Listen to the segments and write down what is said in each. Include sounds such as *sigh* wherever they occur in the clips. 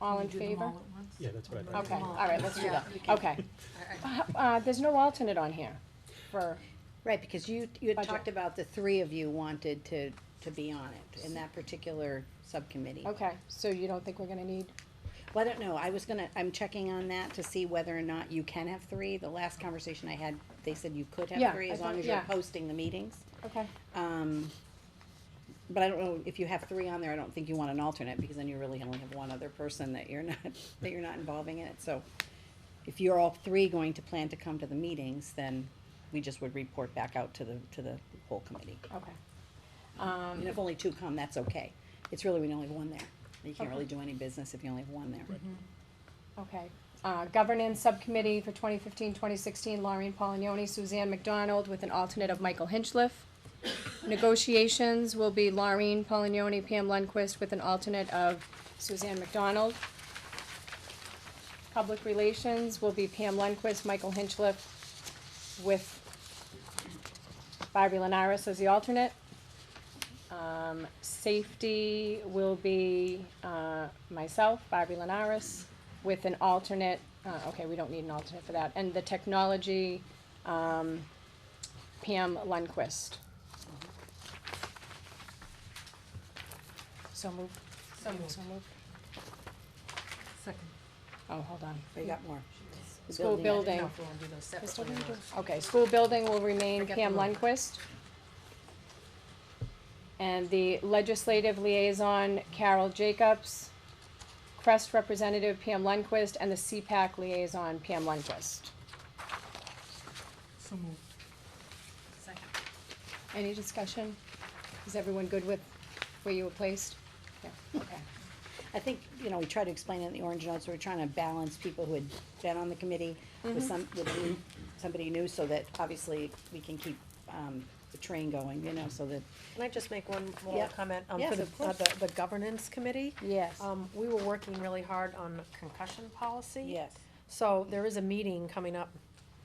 All in favor? Yeah, that's what I thought. Okay, All. all right, let's do Yeah, that. you can- Okay. Uh, uh, there's no alternate on here for, Right, because you, you had Budget. talked about the three of you wanted to, to be on it in that particular subcommittee. okay, so you don't think we're gonna need? Well, I don't know, I was gonna, I'm checking on that to see whether or not you can have three. The last conversation I had, they said you could Yeah, have three I as long thought- as you're yeah. hosting the meetings. Okay, Um, but I don't know, if you have three on there, I don't think you want an alternate, because then you really only have one other person that you're *laughs* not, that you're not involving in it, so. If you're all three going to plan to come to the meetings, then we just would report back out to the, to the whole committee. okay. Um, And if only two come, that's okay. It's really when you only have one there. You can't really do any business if you only have one there. Okay, uh, governance subcommittee for 2015-2016: Laureen Polignoni, Suzanne McDonald, with an alternate of Michael Hinchliff. Negotiations will be Laureen Polignoni, Pam Lundquist, with an alternate of Suzanne McDonald. Public relations will be Pam Lundquist, Michael Hinchliff, with Barbie Lenaris as the alternate. Um, safety will be, uh, myself, Barbie Lenaris, with an alternate, uh, okay, we don't need an alternate for that, and the technology, um, Pam Lundquist. So moved. So moved. So moved. Second. Oh, hold on. We got more. The School building. building. uh, No, if we wanna do those separate, Just what do we whatever. do? Okay, school building will remain Forget Pam the room. Lundquist. And the legislative liaison Carol Jacobs, Crest representative Pam Lundquist, and the CPAC liaison Pam Lundquist. So moved. Second. Any discussion? Is everyone good with where you were placed? Yeah, okay. I think, you know, we tried to explain it in the orange notes, we're trying to balance people who had been on the committee with some, with new- somebody new, so that obviously we can keep, um, the train going, you know, so that, Can I just make one Yeah. more comment? um, Yes, For the, of uh, course. the, the governance committee? Yes. Um, we were working really hard on concussion policy. yes. So there is a meeting coming up,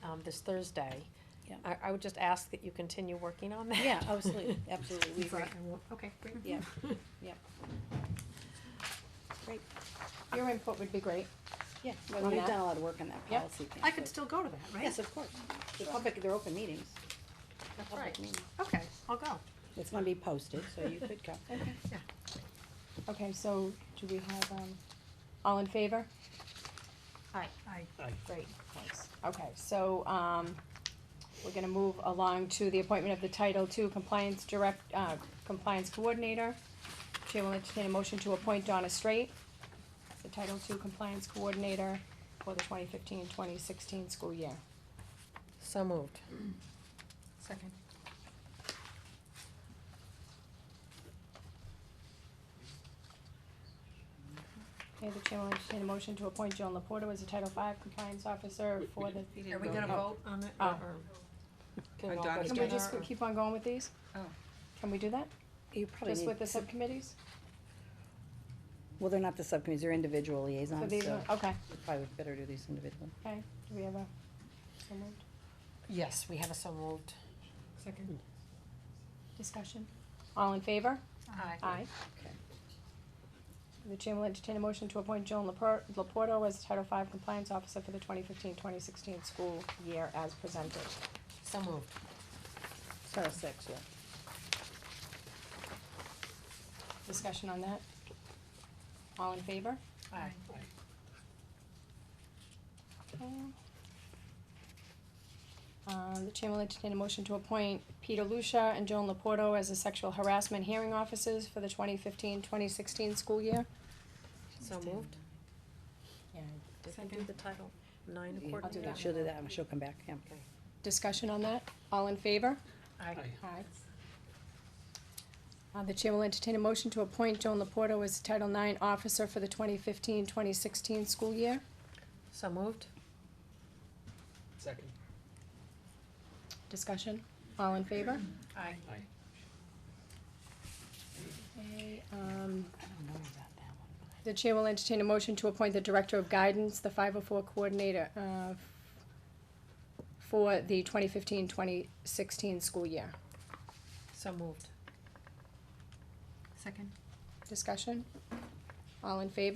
um, this Thursday. Yeah. I, I would just ask that you continue working on *laughs* that. Yeah, absolutely, absolutely, we agree, Right, I won't- Okay, great. yeah, yeah. Great, Your input would be great. yeah, well, On we've that? done a lot of work on that Yep. policy thing. I could so- still go to that, right? Yes, of course, the public, they're open meetings, That's public right. meetings. Okay, I'll go. It's gonna be posted, so you could come. Yeah. Okay, so do we have, um, all in favor? Aye. Aye. I- Great, thanks. Okay, so, um, we're gonna move along to the appointment of the Title II Compliance Direct, uh, Compliance Coordinator. Chair will entertain a motion to appoint Donna Straight, as the Title II Compliance Coordinator for the 2015-2016 school year. So moved. Second. Okay, the chair will entertain a motion to appoint Joan Laporta as the Title V Compliance Officer for the, Are we gonna vote on it? Oh. or- Can Uh, all go Donna did. can we together, just or- keep on going with these? Oh. Can we do that? You probably Just need, with the subcommittees? well, they're not the subcommittees, they're individual For liaisons, these, so one? okay, we probably would better do these individually. okay. Do we have a, so moved? Yes, we have a so moved. Second. Discussion? All in favor? Aye. Aye. Okay. The chair will entertain a motion to appoint Joan Lapor- Laporto as Title V Compliance Officer for the 2015-2016 school year as presented. So moved. So six, yeah. Discussion on that? All in favor? Aye. Okay. Um, the chair will entertain a motion to appoint Peter Lucia and Joan Laporto as the Sexual Harassment Hearing Officers for the 2015-2016 school year. So moved. Yeah. Did we do the title nine Yeah, do coordinator? that. She'll do that, and she'll come back, yeah. Discussion on that? All in favor? Aye. Aye. Uh, the chair will entertain a motion to appoint Joan Laporto as Title IX Officer for the 2015-2016 school year. So moved. Second. Discussion, all in favor? Aye. Aye. Okay, um, I don't know about that one. the chair will entertain a motion to appoint the Director of Guidance, the five oh four coordinator, uh, for the 2015-2016 school year. So moved. Second. Discussion, all in favor?